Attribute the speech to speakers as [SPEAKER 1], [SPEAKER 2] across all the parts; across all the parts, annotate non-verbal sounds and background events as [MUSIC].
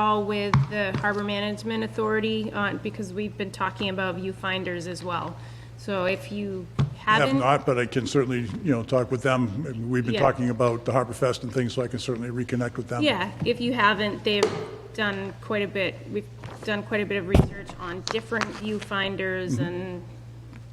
[SPEAKER 1] all with the Harbor Management Authority on, because we've been talking about viewfinders as well. So if you
[SPEAKER 2] Have
[SPEAKER 1] haven't,
[SPEAKER 2] not, but I can certainly, you know, talk with them. We've been
[SPEAKER 1] Yeah.
[SPEAKER 2] talking about the Harbor Fest and things, so I can certainly reconnect with them.
[SPEAKER 1] yeah, if you haven't, they've done quite a bit, we've done quite a bit of research on different viewfinders
[SPEAKER 2] Mm-hmm.
[SPEAKER 1] and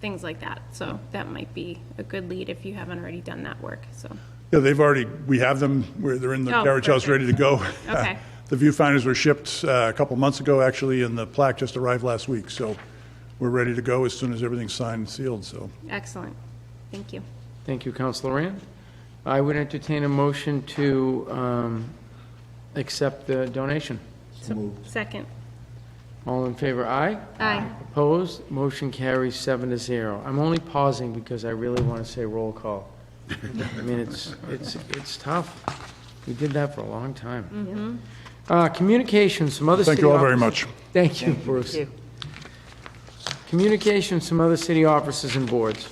[SPEAKER 1] things like that. So that might be a good lead if you haven't already done that work, so.
[SPEAKER 2] Yeah, they've already, we have them, where they're in the
[SPEAKER 1] Oh,
[SPEAKER 2] carriage house,
[SPEAKER 1] perfect.
[SPEAKER 2] ready to go.
[SPEAKER 1] [LAUGHS] Okay.
[SPEAKER 2] [LAUGHS] The viewfinders were shipped uh, a couple months ago, actually, and the plaque just arrived last week, so we're ready to go as soon as everything's signed and sealed, so.
[SPEAKER 1] Excellent. Thank you.
[SPEAKER 3] Thank you, Councilor Rand. I would entertain a motion to um, accept the donation.
[SPEAKER 1] Second.
[SPEAKER 3] All in favor, aye?
[SPEAKER 1] Aye.
[SPEAKER 3] Opposed? Motion carries seven to zero. I'm only pausing because I really want to say roll call. I mean, it's, it's, it's tough. We did that for a long time. Uh, Communications, some other city
[SPEAKER 2] Thank you all very
[SPEAKER 3] offices-
[SPEAKER 2] much.
[SPEAKER 3] Thank you, Bruce. Communications from other city offices and boards.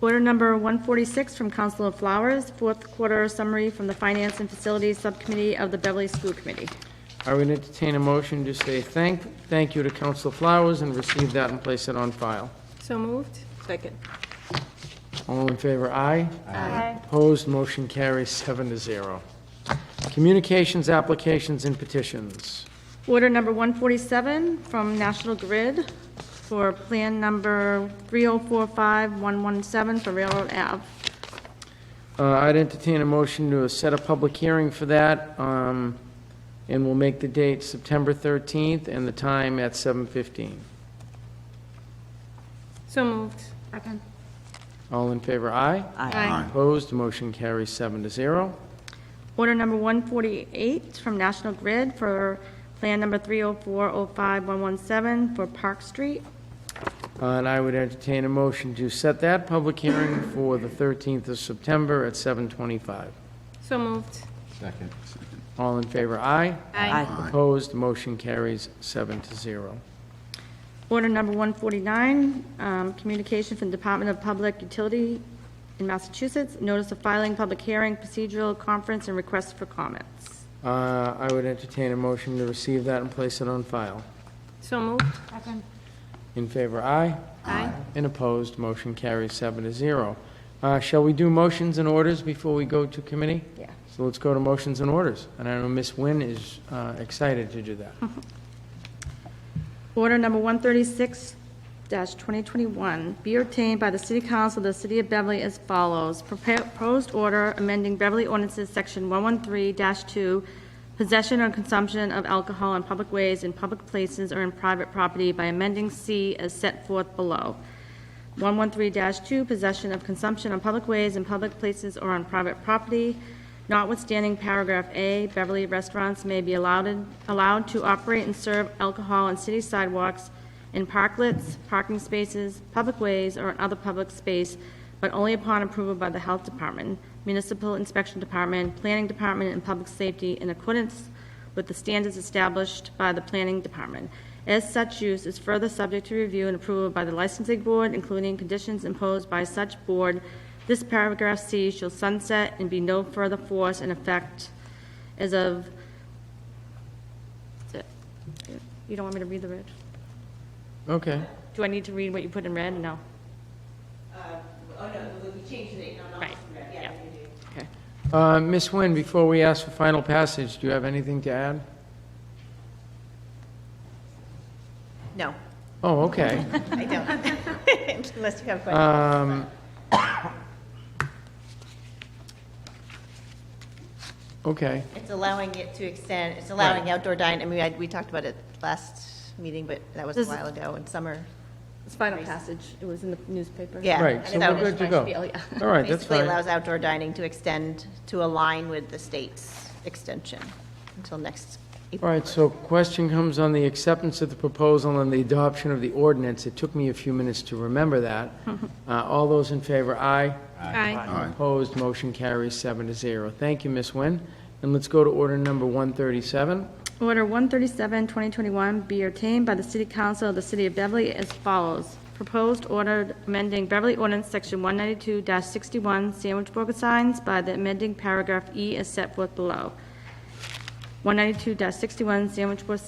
[SPEAKER 4] Order number 146 from Council of Flowers, fourth quarter summary from the Finance and Facilities Subcommittee of the Beverly School Committee.
[SPEAKER 3] I would entertain a motion to say thank, thank you to Council Flowers and receive that and place it on file.
[SPEAKER 1] So moved?
[SPEAKER 5] Second.
[SPEAKER 3] All in favor, aye? Aye. Opposed, motion carries seven to zero. Communications, applications, and petitions.
[SPEAKER 4] Order number 147 from National Grid for Plan Number 3045117 for Railroad Ave.
[SPEAKER 3] Uh, I'd entertain a motion to set a public hearing for that, um, and we'll make the date September 13th and the time at 7:15.
[SPEAKER 1] So moved.
[SPEAKER 4] Second.
[SPEAKER 3] All in favor, aye? Opposed, motion carries seven to zero.
[SPEAKER 4] Order number 148 from National Grid for Plan Number 3040517 for Park Street.
[SPEAKER 3] Uh, And I would entertain a motion to set that public hearing for the 13th of September at 7:25.
[SPEAKER 1] So moved.
[SPEAKER 6] Second.
[SPEAKER 3] All in favor, aye.
[SPEAKER 1] Aye.
[SPEAKER 3] Opposed, motion carries seven to zero.
[SPEAKER 4] Order number 149, um, communication from Department of Public Utility in Massachusetts, notice of filing, public hearing, procedural conference, and request for comments.
[SPEAKER 3] Uh, I would entertain a motion to receive that and place it on file.
[SPEAKER 1] So moved?
[SPEAKER 3] In favor, aye.
[SPEAKER 1] Aye.
[SPEAKER 3] And opposed, motion carries seven to zero. Uh, Shall we do motions and orders before we go to committee?
[SPEAKER 4] Yeah.
[SPEAKER 3] So let's go to motions and orders. And I know Ms. Nguyen is uh, excited to do that.
[SPEAKER 4] Order number 136-2021, be obtained by the City Council of the City of Beverly as follows. Prepare- Proposed order amending Beverly ordinances, Section 113-2, possession or consumption of alcohol in public ways, in public places, or in private property by amending C as set forth below. 113-2, possession of consumption on public ways, in public places, or on private property. Notwithstanding paragraph A, Beverly restaurants may be allowed, allowed to operate and serve alcohol on city sidewalks, in parklets, parking spaces, public ways, or in other public space, but only upon approval by the Health Department, Municipal Inspection Department, Planning Department, and Public Safety in accordance with the standards established by the Planning Department. As such use is further subject to review and approval by the licensing board, including conditions imposed by such board, this paragraph C shall sunset and be no further force in effect as of, that's it. you don't want me to read the red?
[SPEAKER 3] Okay.
[SPEAKER 4] Do I need to read what you put in red? No.
[SPEAKER 5] Oh, no, we changed the date, no, no.
[SPEAKER 4] Right, yeah. Okay.
[SPEAKER 3] Uh, Ms. Nguyen, before we ask for final passage, do you have anything to add?
[SPEAKER 4] [LAUGHS]
[SPEAKER 5] No,
[SPEAKER 3] Oh, okay.
[SPEAKER 5] [LAUGHS] I don't. Unless you have questions.
[SPEAKER 3] Um, Okay,
[SPEAKER 5] It's allowing it to extend, it's allowing outdoor dining, I mean, I- we talked about it last meeting, but that was a
[SPEAKER 4] This is-
[SPEAKER 5] while ago, in summer.
[SPEAKER 4] It's final passage. It was in the newspaper.
[SPEAKER 5] Yeah.
[SPEAKER 3] right, so we're good to go. All right, that's
[SPEAKER 5] Basically
[SPEAKER 3] fine.
[SPEAKER 5] allows outdoor dining to extend, to align with the state's extension until next
[SPEAKER 3] All
[SPEAKER 5] April.
[SPEAKER 3] right, so question comes on the acceptance of the proposal and the adoption of the ordinance. It took me a few minutes to remember
[SPEAKER 5] [LAUGHS]
[SPEAKER 3] that. Uh, All those in favor, aye.
[SPEAKER 1] Aye.
[SPEAKER 3] Opposed, motion carries seven to zero. Thank you, Ms. Nguyen. And let's go to order number 137.
[SPEAKER 4] Order 137, 2021, be obtained by the City Council of the City of Beverly as follows. Proposed order amending Beverly Ordinance Section 192-61 sandwich burger signs by the amending paragraph E as set forth below. 192-61 Sandwich Board